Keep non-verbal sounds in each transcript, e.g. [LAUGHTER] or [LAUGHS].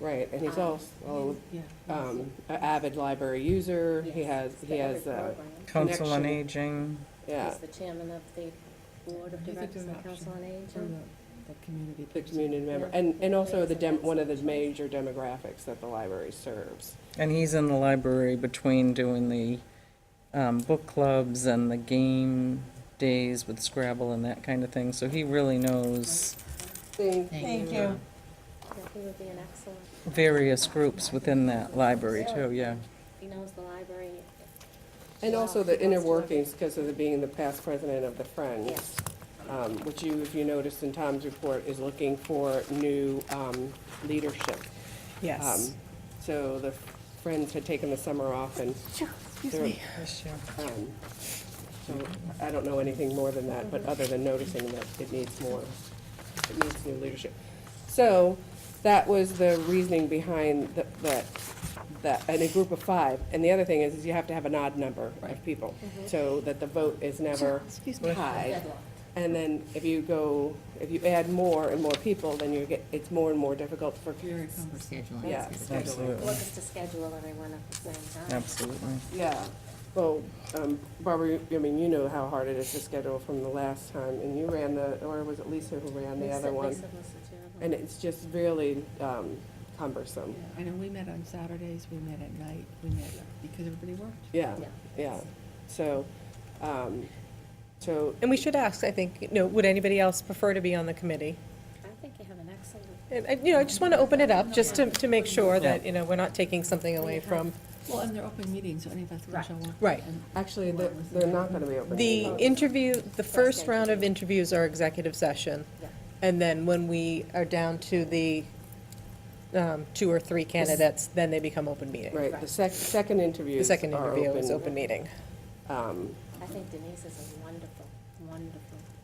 Right, and he's also um, an avid library user. He has, he has, uh, Council on Connection. Aging. yeah, He's the chairman of the Board of You could do Directors an of the Council on Or Aging. the, the community. the person. community member, Yeah. and, and also the dem, one of the major demographics that the library serves. And he's in the library between doing the um, book clubs and the game days with Scrabble and that kind of thing. So he really knows Thank you. Yeah, He would be an excellent, various groups within that library too, yeah. he knows the library. And well. also the He inner knows what- workings, because of the, being the past president of the Friends, Yes. um, which you, if you noticed in Tom's report, is looking for new um, leadership. Um, So the Friends had taken the summer off and. they're- um, So I don't know anything more than that, but other than noticing that it needs more, it needs new leadership. So that was the reasoning behind the- that, that, and a group of five. And the other thing is, is you have to have an odd number of people, so that the vote is never tied. Deadlocked. And then if you go, if you add more and more people, then you get, it's more and more difficult for, Very conversational. yeah, scheduling. Absolutely, Look is to schedule everyone at the same time. absolutely. Yeah, well, um, Barbara, you- I mean, you know how hard it is to schedule from the last time, and you ran the, or was it Lisa who ran the Lisa- other one? Lisa was the chair of them. And it's just really um, Yeah, cumbersome. I know, we met on Saturdays, we met at night, we met because everybody worked. Yeah, Yeah. yeah. So, um, so, And we should ask, I think, you know, would anybody else prefer to be on the committee? I think you have an excellent, And, I- you know, I just want to open it up, just to, to make sure that, you know, we're not taking something away from. Well, and they're open meetings, so any of us can Right. show up. Right. and- actually, they're they're not going to be open. The interview, the first round of interviews are executive session. yeah. And then when we are down to the um, two or three candidates, then they become open meeting. Right, the sec, second interviews The second are interview is open meeting. Um, I think Denise is a wonderful, wonderful,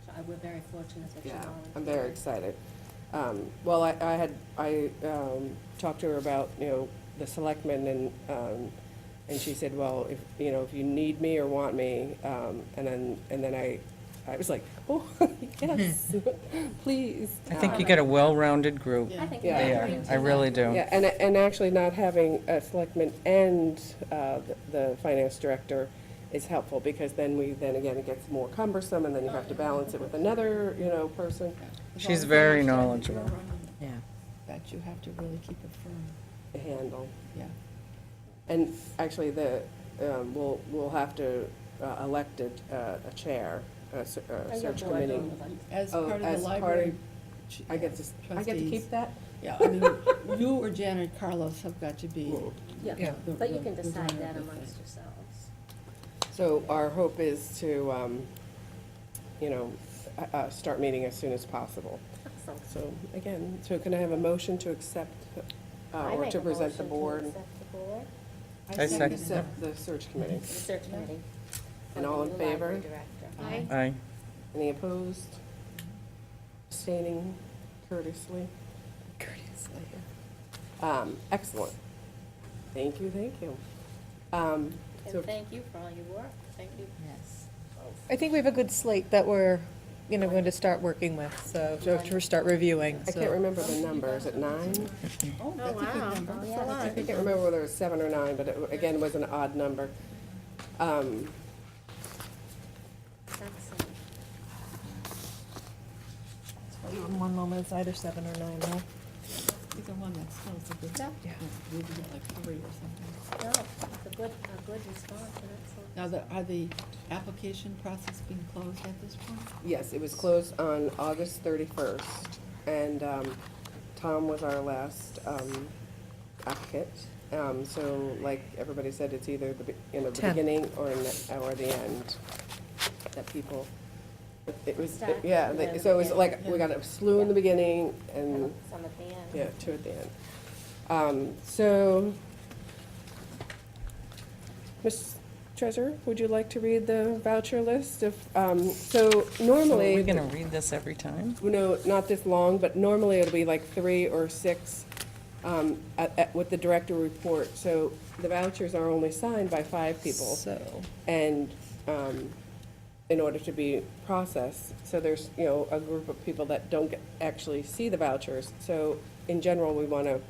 so I- we're very fortunate that you Yeah, volunteered. I'm very excited. Um, Well, I, I had, I um, talked to her about, you know, the selectmen and, um, and she said, well, if, you know, if you need me or want me, um, and then, and then I, I was like, [LAUGHS] oh, yes, [LAUGHS] please. I think you get a well-rounded group. Yeah. I think. Yeah. They you're are, doing I too really much. do. Um, Yeah, and, and actually not having a selectman and uh, the- the finance director is helpful, because then we, then again, it gets more cumbersome, and then you have to balance it with another, you know, person. As She's long as you very understand that you're knowledgeable. running Yeah. That you have to really keep it firm, to handle. yeah. And actually, the, um, we'll, we'll have to uh, elect a, uh, a chair, a se- Oh, a you're search board committee. member. As Oh, part of the as part of- library. ch- I get to, s- I get to trustees. keep that? Yeah, I mean, you or Janet Carlos have got to be. Yeah, Yeah. but you the- can the decide runner that of the thing. amongst yourselves. So our hope is to, um, you know, uh, uh, start meeting as soon as possible. Excellent. So again, so can I have a motion to accept uh, I or make to a present the motion to board? accept the board, I second second that. Accept the search committee. the search committee. And all in for the new library favor? director. Aye. Aye. Any opposed? Abstaining courteously? Courteously. Um, excellent. Thank you, thank you. Um, so, And thank you for all your work. Thank you. Yes. Oh, I think we have a good slate that we're, you know, going to start working with, so, to to start reviewing, I can't so. remember the number, is it nine? Oh, that's a good number. Yeah, that's I can't remember whether it was seven or nine, but it, again, was an odd number. Um, excellent. One moment, it's either seven or nine, no? Either one, that's still a good. Yeah. We can get like three or something. No, it's a good, a good response, and excellent. Now, the, are the application process being closed at this point? Yes, it was closed on August 31st, and um, Tom was our last um, applicant. Um, So like everybody said, it's either the, be- you know, the Tenth. beginning or, in the- or the end that people, it- it was, Start yeah, and they- then so it was end. like, we got a slew in the beginning and, Some at the end. yeah, two at the end. Um, So, Ms. Treasurer, would you like to read the voucher list of, um, so So are normally. we gonna read this every time? No, not this long, but normally it'll be like three or six um, at- at- with the director report. So the vouchers are only signed by five people So, and um, in order to be processed. So there's, you know, a group of people that don't get- actually see the vouchers. So in general, we want to